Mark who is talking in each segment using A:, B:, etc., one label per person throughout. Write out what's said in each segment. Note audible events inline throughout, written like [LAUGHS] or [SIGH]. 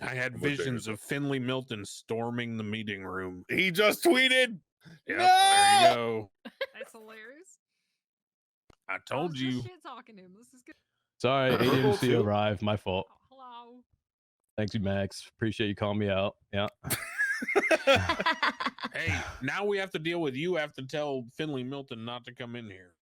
A: I had
B: What they
A: visions of Finley Milton storming the meeting room. He just tweeted. Yeah, there you go.
C: That's hilarious.
A: I
C: I was
A: told
C: just
A: you.
C: Shit talking him. This is good.
D: Sorry, [LAUGHS]
B: Herbal
D: ADMC
B: too?
D: arrived. My fault.
C: Oh, hello.
D: Thanks, you, Max. Appreciate you calling me out. Yeah.
C: Uh-huh.
A: Hey, now we have to deal with you. Have to tell Finley Milton not to come in here.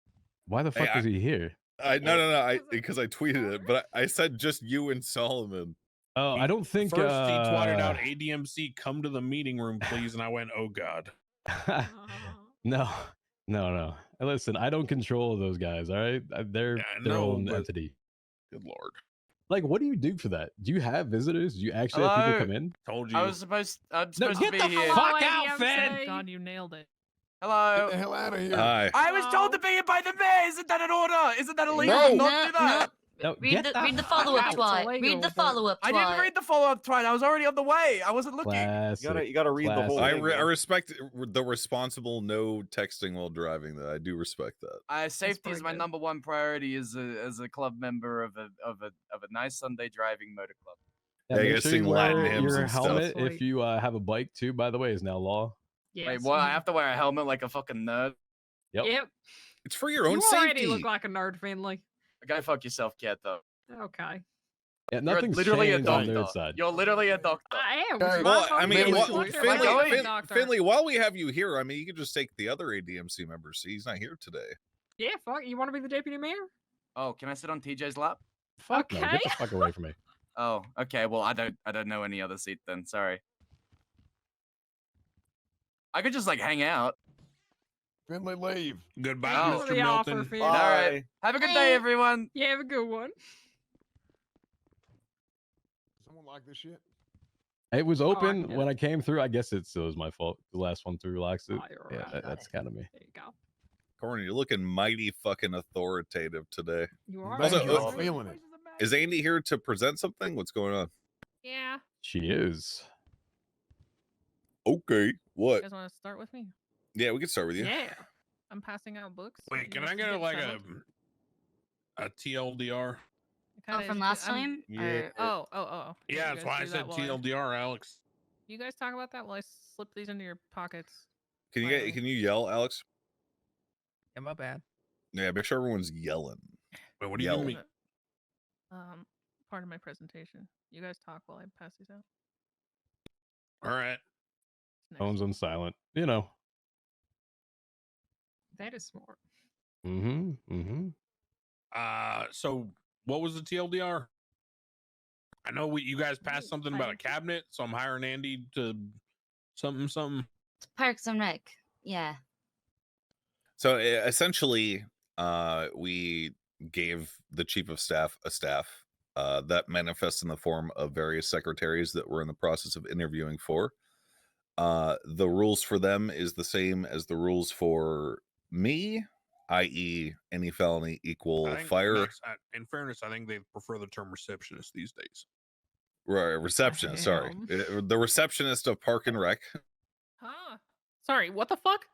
D: Why the
B: Hey,
D: fuck
B: I-
D: is he here?
B: I no no no I
C: Was it
B: because I tweeted it, but I, I said just you and Solomon.
D: Oh,
A: He-
D: I don't think.
A: First, he twatted
D: uh,
A: out ADMC. Come to the meeting room, please. And I went, Oh God.
D: uh, [LAUGHS] no, no, no. Hey, Listen, I don't control those guys. All right, Uh, they're
A: Yeah, I
D: their
A: know,
D: own
A: but-
D: entity.
A: Good Lord.
D: Like, what do you do for that? Do you have visitors? Do you actually have
E: Hello?
D: people come in?
A: Told you.
E: I was supposed. I'm
D: No,
E: supposed
D: get
E: to
D: the
E: be here.
D: fuck-
C: God, you nailed it. Oh.
F: Get
D: [LAUGHS]
F: the
E: Hello.
F: hell out of here.
B: Hi.
E: I was told to be here by the mayor. Isn't that an order? Isn't that illegal?
G: no,
E: Not do that.
D: No,
G: Read
D: get
G: the,
D: the
G: read the
D: fuck
G: follow up
H: [LAUGHS]
C: out.
G: twat. Read
C: Illegal,
G: the
C: but-
G: follow up twat.
E: I didn't read the follow up twine. I was already on the way. I wasn't looking.
D: Classic.
I: You gotta, you gotta read the
C: Oh,
I: whole.
B: I,
D: Classic.
I: thing,
B: re- I
I: man.
B: respect the responsible no texting while driving. That I do respect that.
E: Uh, safety is
C: pretty
E: my
C: good.
E: number one priority as a as a club member of a of a of a nice Sunday driving motor club.
D: Yeah,
B: Yeah, you
D: make
B: gotta
D: sure you
B: sing Latin
D: wear
B: hymns
D: your
B: and stuff.
D: helmet if
C: Sweet.
D: you uh, have a bike too. By the way, is now law.
C: Yes.
E: Wait, what? I
C: mhm.
E: have to wear a helmet like a fucking nerd.
D: Yep.
C: Yep.
B: It's for your own
C: you
B: safety.
C: already look like a nerd, Finley.
E: Go fuck yourself, cat. Though
C: Okay.
D: Yeah,
E: you're
D: nothing's
E: literally a
D: changed on
E: doctor.
D: their side.
E: You're literally a doctor.
C: I am.
F: Hey,
C: my
B: well, I
C: fault
B: mean,
C: for
B: what,
C: not talking
E: what-
C: about
B: Finley,
C: going to
B: Fin-
C: the doctor.
B: Finley, while we have you here, I mean, you could just take the other ADMC member. See, he's not here today.
C: Yeah, fuck. You want to be the deputy mayor?
E: Oh, can I sit on TJ's lap?
D: Fuck no, get
C: Okay.
D: the fuck away from me.
E: Oh, okay. Well, I don't I don't know any other seat then. Sorry. I could just like hang out.
F: Finley, leave.
A: Goodbye,
E: Oh.
C: Thanks for
A: Mr.
C: the offer,
A: Milton.
C: Finley.
E: All right.
I: Bye.
E: Have a good
G: Bye.
E: day, everyone.
C: Yeah, have a good one.
F: Someone like this shit.
D: It was
C: I
D: open
C: get
D: when I came through. I guess it still is my fault. The last one through locks it.
C: Oh, you're
D: yeah,
C: right.
D: that- that's kind of me.
C: There you go.
B: Corny, you're looking mighty fucking authoritative today.
C: You are.
F: Also,
C: right.
B: uh,
C: Those
F: feeling it.
C: places are back.
B: Is Andy here to present something? What's going on?
H: Yeah.
D: She is.
B: Okay,
H: You
B: what?
H: guys want to start with me?
B: Yeah, we can start with you.
C: Yeah.
H: I'm passing out books. if
A: Wait,
H: you
A: can
H: guys
A: I get
H: get
A: like a
H: settled.
A: a TLDR?
H: It
G: Oh,
H: kinda
G: from
H: is-
G: last
H: I'm-
G: time?
I: Yeah.
G: Or-
H: Oh, oh, oh.
A: Yeah,
H: you
A: that's
H: guys
A: why I
H: do that
A: said
H: while I-
A: TLDR, Alex.
H: You guys talk about that while I slip these into your pockets.
B: Can you get,
H: Fine.
B: can you yell, Alex?
H: Yeah, my bad.
B: Yeah, make sure everyone's yelling.
A: Wait, what do you
B: Yell.
A: mean?
H: Um, part of my presentation. You guys talk while I pass these out.
A: All right.
H: It's nice.
D: Phones on silent. You know.
C: That is smart.
D: Mm-hmm. Mm-hmm.
A: Uh, so what was the TLDR? I know we you guys passed
C: Ooh,
A: something about a
C: fine.
A: cabinet, so I'm hiring Andy to something something.
G: It's Parks and Rec. Yeah.
B: So e- essentially, uh, we gave the chief of staff a staff uh, that manifests in the form of various secretaries that we're in the process of interviewing for. Uh, the rules for them is the same as the rules for me, i.e., any felony
A: I
B: equal
A: think
B: fire
A: next- I- in fairness, I think they prefer the term receptionist these days.
B: re- receptionist. Sorry,
C: Damn.
B: Uh, the receptionist of Park and Rec.
H: Huh? Sorry, what the fuck?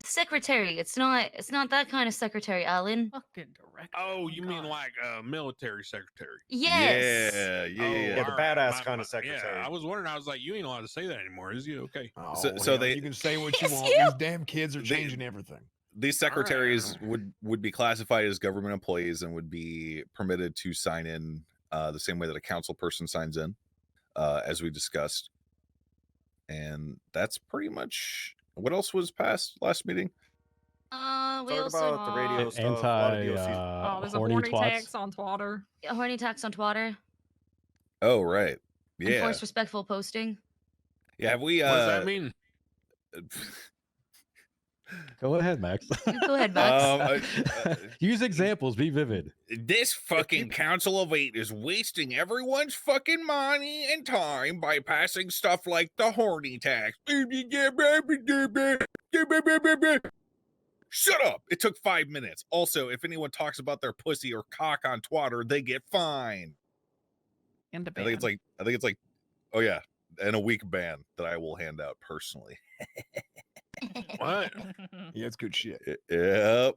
G: It's secretary. It's not it's not that kind of secretary, Alan.
H: Fucking direct.
A: Oh,
H: my
A: you mean
H: God.
A: like a military secretary?
G: Yes.
B: Yeah, yeah,
A: Oh,
B: yeah.
I: the
A: all right.
I: badass
A: My-
I: kinda
A: my-
I: secretary.
A: Yeah, I was wondering. I was like, you ain't allowed to say that anymore, is you? Okay.
F: Oh,
B: So- so
F: hell,
B: they-
F: you can say what you
G: Yes,
F: want.
G: you-
F: These damn kids are
B: They-
F: changing everything.
B: these
A: All right.
B: secretaries would would be classified as government employees and would be permitted to sign in uh, the same way that a council person signs in, uh, as we discussed. And that's pretty much what else was passed last meeting.
G: Uh, we
I: Talk
G: also
I: about the radio
D: An
I: stuff. a lot of
D: Anti
I: DLCs.
D: uh,
C: oh, there's
D: horny
C: a warning
D: twats.
C: tax on Twitter.
G: horny tax on Twitter.
B: Oh right, yeah,
G: Enforce respectful posting. [LAUGHS]
B: yeah. Have we? Uh,
A: what does that mean?
D: Go ahead, Max.
G: Go ahead, Max.
B: Um, I- uh,
D: [LAUGHS] Use examples. Be vivid.
B: This fucking Council of Eight is wasting everyone's fucking money and time by passing stuff like the horny tax. Shut up! It took five minutes. Also, if anyone talks about their pussy or cock on Twitter, they get fined.
H: And a
B: I think it's
H: band.
B: like I think it's like, oh yeah, and a week ban that I will hand out personally.
A: What?
H: [LAUGHS]
F: Yeah, it's good shit.
B: Y- Yep.